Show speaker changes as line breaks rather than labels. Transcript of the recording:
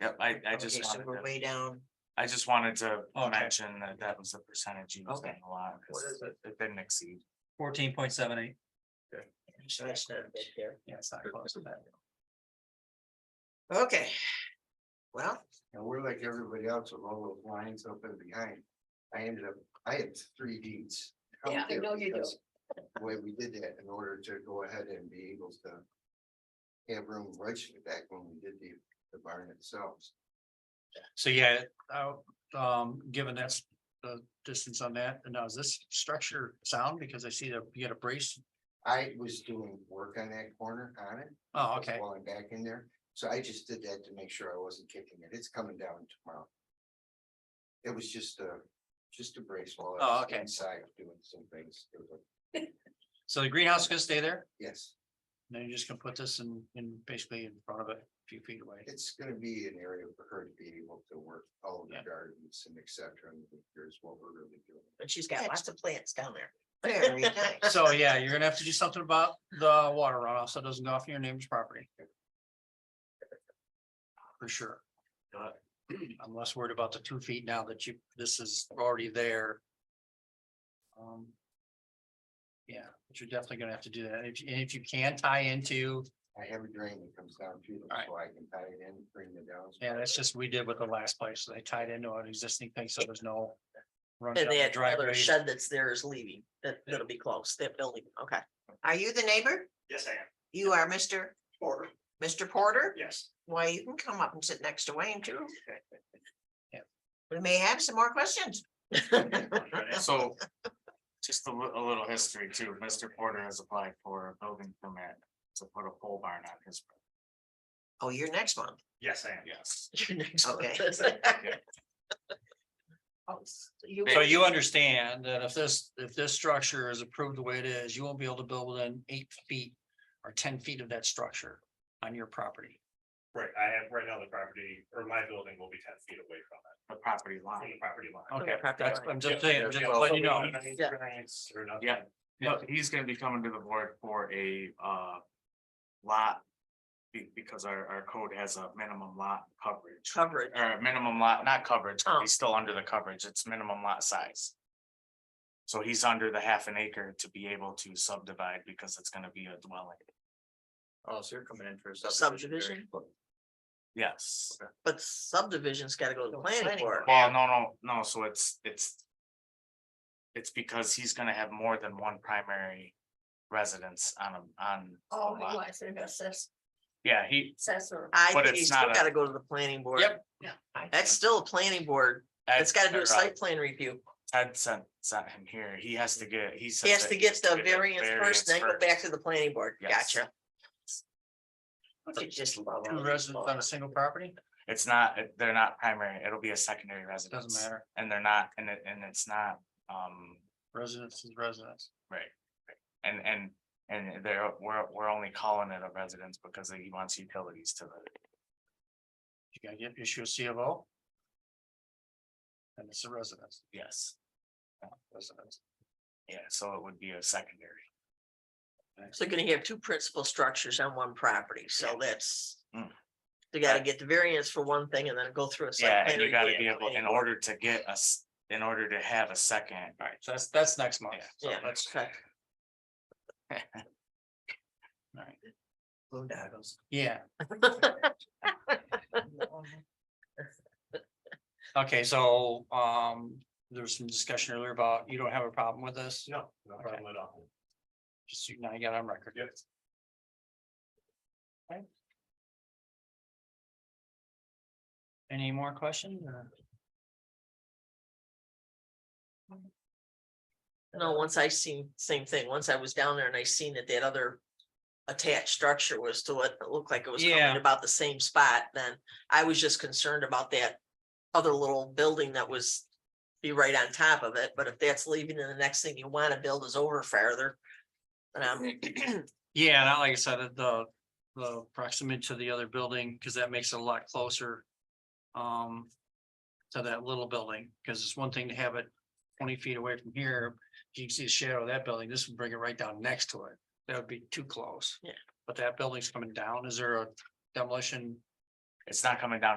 Yep, I, I
Okay,
just
so
wanted
we're
to,
way down.
I just wanted to
Okay.
mention that that was the percentage used in
Okay.
the lot,
What
because
is it?
it didn't exceed.
Fourteen point seven eight,
So that's not big there.
yeah, it's not close to that.
Okay. Well,
And we're like everybody else with all those lines up and behind. I ended up, I had three deeds. out
Yeah, I
there
know you do.
because The way we did that in order to go ahead and be able to have room right back when we did the, the barn itself.
So yeah, uh, um, given that's the uh, distance on that, and now is this structure sound, because I see that you got a brace?
I was doing work on that corner on it.
Oh, okay,
While I'm back in there, so I just did that to make sure I wasn't kicking it, it's coming down tomorrow. It was just a, just a brace while. I
Oh,
was
okay.
Inside doing some things, It was-
so the greenhouse is gonna stay there,
yes,
and then you're just gonna put this in, in basically in front of it, a few feet away.
it's gonna be an area for her to be able to work all of the
Yeah.
gardens and et cetera, and here's what we're really doing.
but she's got lots of plants down there. Very nice.
So yeah, you're gonna have to do something about the water runoff, so it doesn't go off your neighbor's property. For sure.
Got
I'm less worried about the two feet now that you, this is already there. Um. Yeah, but you're definitely gonna have to do that, if, you- and if you can tie into,
I have a drain that comes down to them,
Alright.
so I can tie it in, bring it down.
yeah, that's just, we did with the last place, they tied into an existing thing, so there's no. runs
And
down the
that other
driveways.
shed that's there is leaving, that, that'll be close, that building, okay.
Are you the neighbor?
Yes, I am.
You are Mr.
Porter.
Mr. Porter?
Yes.
Why, you can come up and sit next to Wayne too.
Yeah.
We may have some more questions.
So, just a li- a little history too, Mr. Porter has applied for a building permit to put a pole barn on his.
Oh, you're next month.
Yes, I am. Yes.
Your next one.
Okay.
Oh, s- You,
So you understand that if this, if this structure is approved the way it is, you won't be able to build within eight feet or ten feet of that structure on your property.
Right, I have, right now the property, or my building will be ten feet away from it,
The property
from the
line.
property line.
Okay,
your property
that's,
line.
I'm just saying, I'm just letting you know.
Yeah.
Yeah. No, he's gonna be coming to the board for a, uh, lot. be- Because our, our code has a minimum lot coverage.
coverage,
or minimum lot, not coverage, 'cause
Oh.
he's still under the coverage, it's minimum lot size. So he's under the half an acre to be able to subdivide because it's gonna be a dwelling,
Oh, so you're coming in for a
subdivision,
yes.
but subdivision's gotta go to the planning
Planning
board.
Well, no, no, no, so it's, it's. It's because he's gonna have more than one primary residence on a, on. a
Oh,
lot.
it's an assess,
Yeah, he,
assessor. I
But
think
it's
you still
not a-
gotta go to the planning board.
Yep.
That's still a planning board, it's gotta do a site plan review,
Ted sent, sent him here, he has to get, he. said
he has
that
to get the variance
variance
first, then go back
first.
to the planning board,
Yes.
gotcha. You just love all
Two
these
residents on a
laws.
single property,
It's not, it- they're not primary, it'll be a secondary residence.
doesn't matter,
And they're not, and it, and it's not, um,
residence is residence.
and, and, and they're, we're, we're only calling it a residence because he wants utilities to the,
You gotta get, issue a C of O. And it's a residence,
yes.
residence.
Yeah, so it would be a secondary.
So you're gonna have two principal structures on one property, so that's.
Mm.
You gotta get the variance for one thing and then go through a. site
Yeah,
plan
and you gotta
review.
be able, in order to get us, in order to have a second,
All right, so that's, that's next month.
Yeah.
So
Yeah,
that's-
okay.
All right,
Boondoggles.
yeah. Okay, so, um, there was some discussion earlier about you don't have a problem with this?
No, no problem at all.
Just so you- now you got it on record.
Yes.
Any more questions or?
No, once I seen, same thing, once I was down there and I seen that that other. Attached structure was to what it looked like it was
Yeah.
coming about the same spot, then I was just concerned about that. Other little building that was. Be right on top of it, but if that's leaving and the next thing you wanna build is over farther. um, Then I'm,
Yeah, and I- like I said, uh, the, the proximity to the other building, because that makes it a lot closer. Um, to that little building, because it's one thing to have it twenty feet away from here. You can see the shadow of that building. This would bring it right down next to it. That would be too close.
Yeah.
But that building's coming down. Is there a demolition
it's not coming down